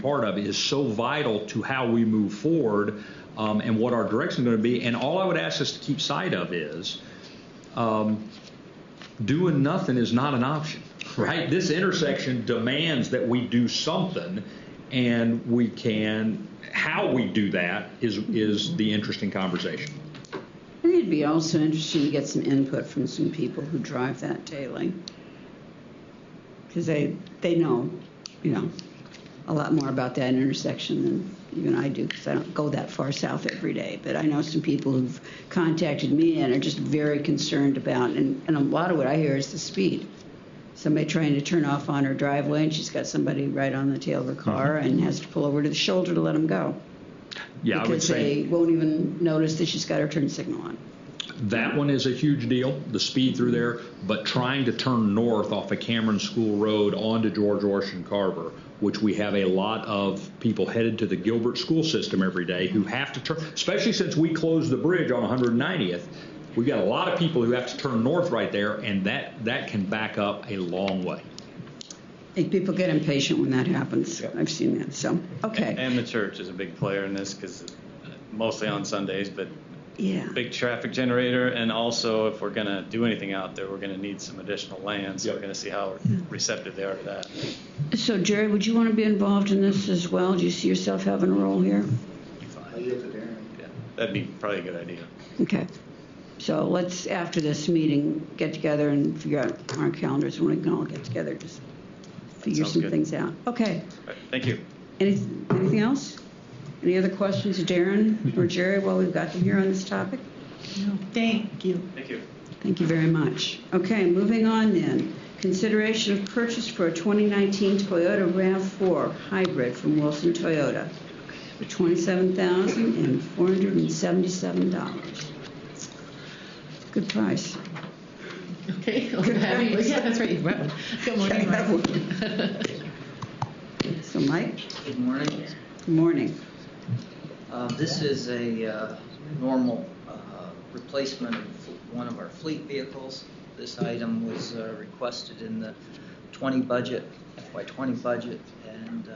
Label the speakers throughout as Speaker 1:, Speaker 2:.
Speaker 1: part of is so vital to how we move forward um, and what our direction is going to be. And all I would ask us to keep sight of is um, doing nothing is not an option, right? This intersection demands that we do something, and we can. How we do that is is the interesting conversation.
Speaker 2: I think it'd be also interesting to get some input from some people who drive that daily. Because they, they know, you know, a lot more about that intersection than even I do, because I don't go that far south every day. But I know some people who've contacted me and are just very concerned about, and, and a lot of what I hear is the speed. Somebody trying to turn off on her driveway, and she's got somebody right on the tail of her car and has to pull over to the shoulder to let them go.
Speaker 1: Yeah, Mm-hmm. I would
Speaker 2: Because
Speaker 1: say
Speaker 2: they won't even notice that she's got her turn signal on.
Speaker 1: That one is a huge deal, the speed through there, but trying to turn north off of Cameron School Road onto George Washington Carver, which we have a lot of people headed to the Gilbert school system every day who have to turn, especially since we closed the bridge on 190th. We've got a lot of people who have to turn north right there, and that, that can back up a long way.
Speaker 2: I think people get impatient when that happens. I've seen that, so, okay.
Speaker 3: And the church is a big player in this because mostly on Sundays, but
Speaker 2: Yeah,
Speaker 3: big traffic generator. And also, if we're going to do anything out there, we're going to need some additional land. So we're
Speaker 1: Yep.
Speaker 3: going to see how receptive they are to that.
Speaker 2: so Jerry, would you want to be involved in this as well? Do you see yourself having a role here?
Speaker 3: Yeah, That'd be probably a good idea.
Speaker 2: Okay, so let's, after this meeting, get together and figure out our calendars when we can all get together, just figure
Speaker 3: sounds
Speaker 2: some
Speaker 3: good.
Speaker 2: things out. Okay,
Speaker 3: All right, Thank you.
Speaker 2: Any- anything else? Any other questions, of Darren or Jerry, while we've got them here on this topic?
Speaker 4: Thank you.
Speaker 3: Thank you.
Speaker 2: Thank you very much. Okay, moving on then. Consideration of purchase for a 2019 Toyota RAV4 hybrid from Wilson Toyota for $27,477. Good price.
Speaker 4: Okay, oh, happy-
Speaker 2: morning.
Speaker 4: yeah, that's right, you wrote. Good
Speaker 2: Yeah,
Speaker 4: morning,
Speaker 2: that
Speaker 4: Mike.
Speaker 2: So Mike,
Speaker 5: Good morning.
Speaker 2: good morning.
Speaker 5: Uh, This is a uh, normal uh, replacement of one of our fleet vehicles. This item was uh, requested in the 20 budget, FY 20 budget, and uh,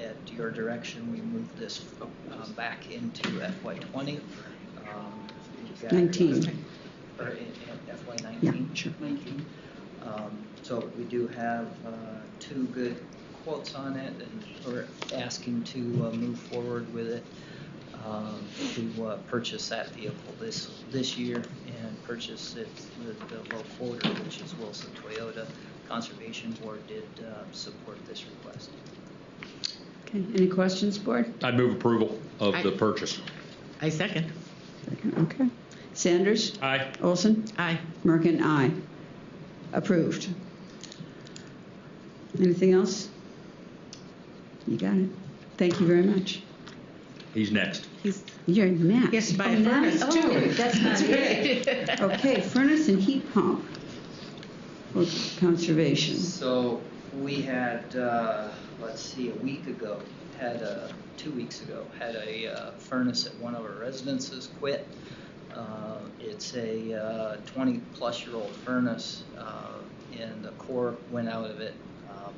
Speaker 5: at your direction, we moved this uh, back into FY 20. Um, you've got-
Speaker 2: 19.
Speaker 5: Or in in FY
Speaker 2: Yeah,
Speaker 5: 19.
Speaker 2: sure.
Speaker 5: Um, So we do have uh, two good quotes on it, and we're asking to uh, move forward with it, um, to uh, purchase that vehicle this, this year and purchase it with the low quota, which is Wilson Toyota. Conservation Board did uh, support this request.
Speaker 2: Okay, any questions, board?
Speaker 1: I'd move approval of the
Speaker 4: Aye.
Speaker 1: purchase.
Speaker 4: I second.
Speaker 2: Second, Okay. Sanders?
Speaker 1: Aye.
Speaker 2: Olson?
Speaker 4: Aye.
Speaker 2: Merkin, aye. Approved. Anything else? You got it. Thank you very much.
Speaker 1: He's next.
Speaker 4: He's-
Speaker 2: You're next.
Speaker 4: He has to buy a
Speaker 2: Oh, now-
Speaker 4: furnace, too.
Speaker 2: oh, That's not it. Okay, furnace and heat pump for conservation.
Speaker 5: So we had, uh, let's see, a week ago, had a, two weeks ago, had a uh, furnace at one of our residences quit. Uh, It's a 20-plus-year-old furnace, uh, and the core went out of it. Um,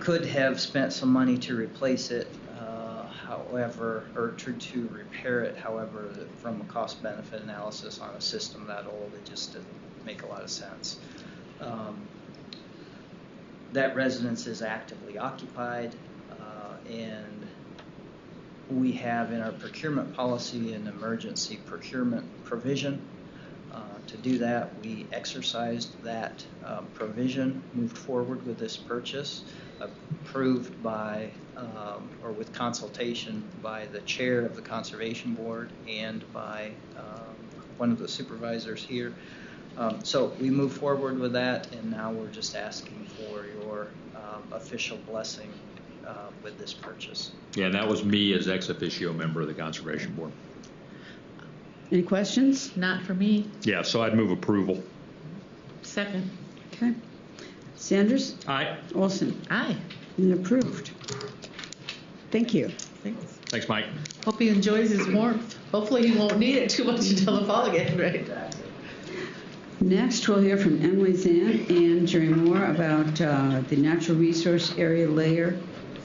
Speaker 5: could have spent some money to replace it, uh, however, or to, to repair it, however, from a cost benefit analysis on a system that old, it just doesn't make a lot of sense. Um, that residence is actively occupied, uh, and we have in our procurement policy an emergency procurement provision. Uh, To do that, we exercised that uh, provision, moved forward with this purchase, approved by, um, or with consultation by the chair of the Conservation Board and by um, one of the supervisors here. Um, So we moved forward with that, and now we're just asking for your um, official blessing uh, with this purchase.
Speaker 1: Yeah, that was me as ex officio member of the Conservation Board.
Speaker 2: Any questions?
Speaker 4: Not for me,
Speaker 1: Yeah, so I'd move approval.
Speaker 4: second.
Speaker 2: Okay. Sanders?
Speaker 1: Aye.
Speaker 2: Olson?
Speaker 4: Aye,
Speaker 2: And approved. Thank you.
Speaker 4: thanks.
Speaker 1: Thanks, Mike.
Speaker 4: Hope he enjoys his warmth. Hopefully, he won't need it too much until the fall again, right?
Speaker 2: Next, we'll hear from Emily Zan and Jerry Moore about uh, the natural resource area layer